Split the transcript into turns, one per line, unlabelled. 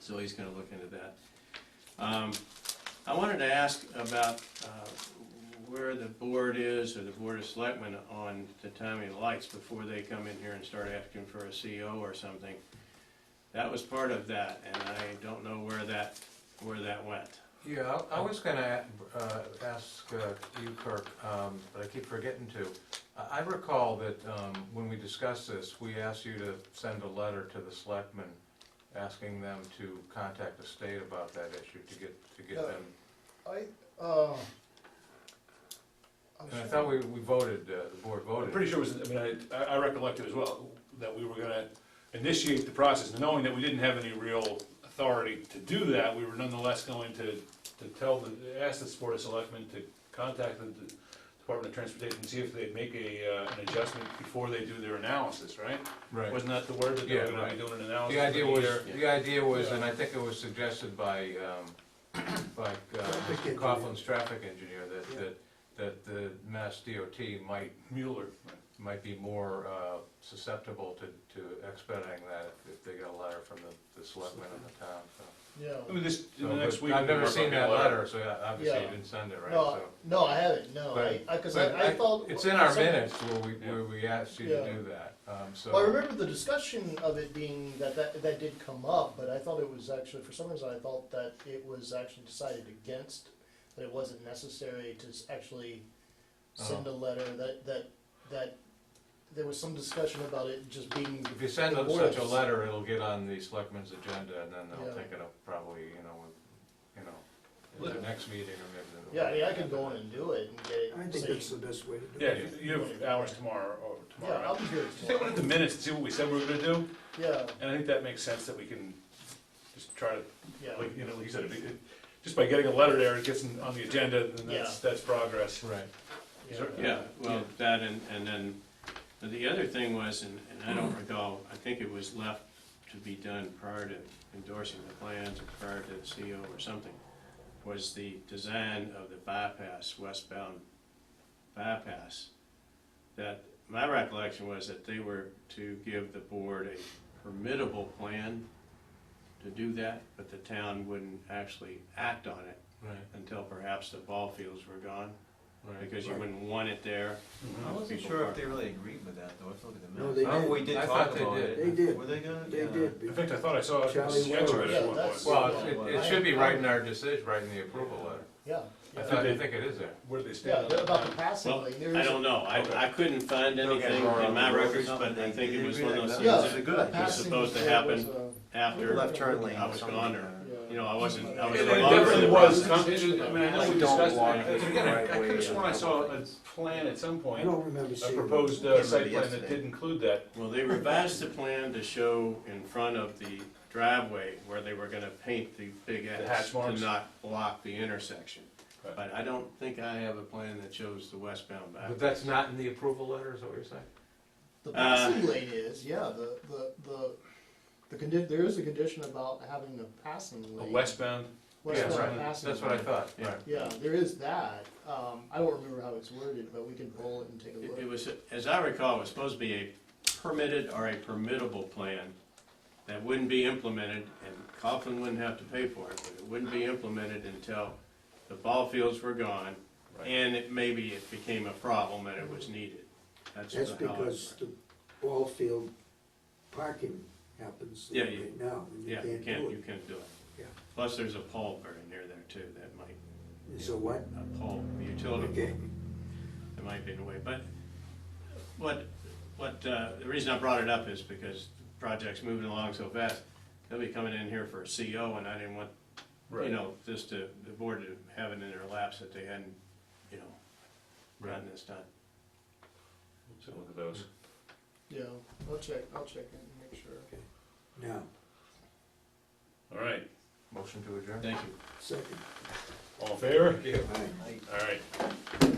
so he's gonna look into that. Um, I wanted to ask about, uh, where the board is, or the board of selectmen on the timing of the lights before they come in here and start asking for a CO or something. That was part of that, and I don't know where that, where that went.
Yeah, I I was gonna uh, ask uh, you, Kirk, um, but I keep forgetting to. I- I recall that um, when we discussed this, we asked you to send a letter to the selectmen, asking them to contact the state about that issue to get, to get
Uh,
them.
I, uh. I'm
And I
sure-
thought we, we voted, uh, the board
I'm
voted.
pretty sure it was, I mean, I, I recollect it as well, that we were gonna initiate the process, knowing that we didn't have any real authority to do that, we were nonetheless going to, to tell the, ask the Board of Selectmen to contact the Department of Transportation, see if they'd make a, uh, an adjustment before they do their analysis, right?
Right.
Wasn't that the word, that they
Yeah,
were gonna be
right.
doing an analysis?
The idea
of
was,
year?
the idea was, and I think it was suggested by, um, by uh,
Traffic
Mr.
engineer.
Coughlin's traffic engineer, that,
Yeah.
that, that the Mass DOT might
Mueller,
might be more uh, susceptible to, to expediting that if- if they get a letter from the, the selectmen in the town, so.
Yeah,
I mean, this, in the
So,
next
but
week.
I've
we
never
work on
seen
the
that letter, so I- obviously you
Yeah.
didn't send it, right,
no,
so.
no, I haven't, no, I,
But-
I, cause
but
I, I thought.
It's in our
some-
minutes where we, where we asked you to
Yeah.
do that, um, so.
Well, I remember the discussion of it being that, that, that did come up, but I thought it was actually, for some reason, I thought that it was actually decided against, that it wasn't necessary to s- actually send
Uh-huh.
a letter, that, that, that, there was some discussion about it just being,
If you send
the
them such a
boards.
letter, it'll get on the selectmen's agenda and then they'll
Yeah.
take it up probably, you know, with- you know, at the
Look.
next meeting or maybe. the-
yeah, I mean, I could go in and do it and get it.
I think
say-
that's the best way to do
Yeah,
it.
you- you have hours tomorrow, or
Yeah,
tomorrow.
I'll be here
Just take a look
tomorrow,
at the minutes and see what we said we were gonna do.
yeah,
And I think that makes sense that we can just try to,
yeah.
like, you know, like you said, if it- just by getting a letter there, it gets in- on the agenda, then that's, that's progress.
Right.
yeah.
Sure.
Yeah, well, that and, and then, but the other thing was, and, and I don't recall, I think it was left to be done prior to endorsing the plans or prior to the CO or something, was the design of the bypass, westbound bypass. That, my recollection was that they were to give the board a permittable plan to do that, but the town wouldn't actually act on it
Right,
until perhaps the ball fields were gone,
right.
because you wouldn't want it there.
Mm-hmm.
I wasn't
People
sure
park.
if they really agreed with that, though, if you look at the
No,
minutes.
they
Oh,
did.
we did
I
talk
thought they
about
did.
it.
They did.
Were they gonna?
They
Yeah.
did,
In
be-
fact, I thought I saw a
Charlie
sketch of it
Weber.
at
Yeah,
one
that's-
point.
Well, it, it should be right in our decision, right in the approval letter.
Yeah,
I
yeah,
thought, I think it is there.
Where they
yeah,
stand. on
about the
that.
passing
uh, Well,
lane, there
I
is,
don't know, I, I couldn't find
Don't get
anything
wrong,
in my
the road
records,
or
but
something,
I
they
think it
did
was
agree
one of
like
those
that.
things
Yeah.
This
that
is a good idea.
passing
supposed to
lane was,
happen
uh,
after,
Left turn lane.
I was
something Uh,
gone
like
there.
that.
yeah.
you know, I wasn't, I was
It
no
it
longer.
definitely
there.
was, con- I mean, I know
Like,
we
don't
discussed
walk
it.
the
Again, I
right
I could
way
have sworn I
and-
saw a plan at some
I
point,
don't remember
a
seeing.
proposed
Yeah,
uh, site
maybe
plan that
yesterday.
did include that.
Well, they revised the plan to show in front of the driveway where they were gonna paint the big
hatch
X to
marks.
not block the intersection.
Right.
But I don't think I have a plan that shows the westbound back.
But that's not in the approval letter, is that what you're saying?
The passing
uh,
lane is, yeah, the, the, the, the condi- there is a condition about having the passing
A
lane.
westbound,
Yeah,
Westbound
right.
passing
That's what I
lane.
thought,
Yeah.
right.
Yeah, there is that, um, I don't remember how it's worded, but we can pull it and take a
It- It
look.
was, as I recall, it was supposed to be a permitted or a permittable plan that wouldn't be implemented, and Coughlin wouldn't have to pay for it, but it wouldn't be implemented until the ball fields were gone,
Right.
and it, maybe it became a problem and it was needed. That's
That's
how it
because
worked.
the ball field parking happens
Yeah, you-
right now, and you
Yeah, you
can't
can't, you
do
can't do it.
Yeah.
Plus, there's a pole very near there too, that might,
it. So what?
a pole, a utility pole.
Okay,
It might be in a way, but what, what, uh, the reason I brought it up is because the project's moving along so fast. They'll be coming in here for a CO and I didn't want, you
Right.
know, this to, the board to have it in their laps that they hadn't, you know, gotten this done.
so look at those.
Yeah, I'll check, I'll check it and make sure.
now,
All right,
Motion to adjourn?
Thank you.
second.
all in favor?
Aye.
All right.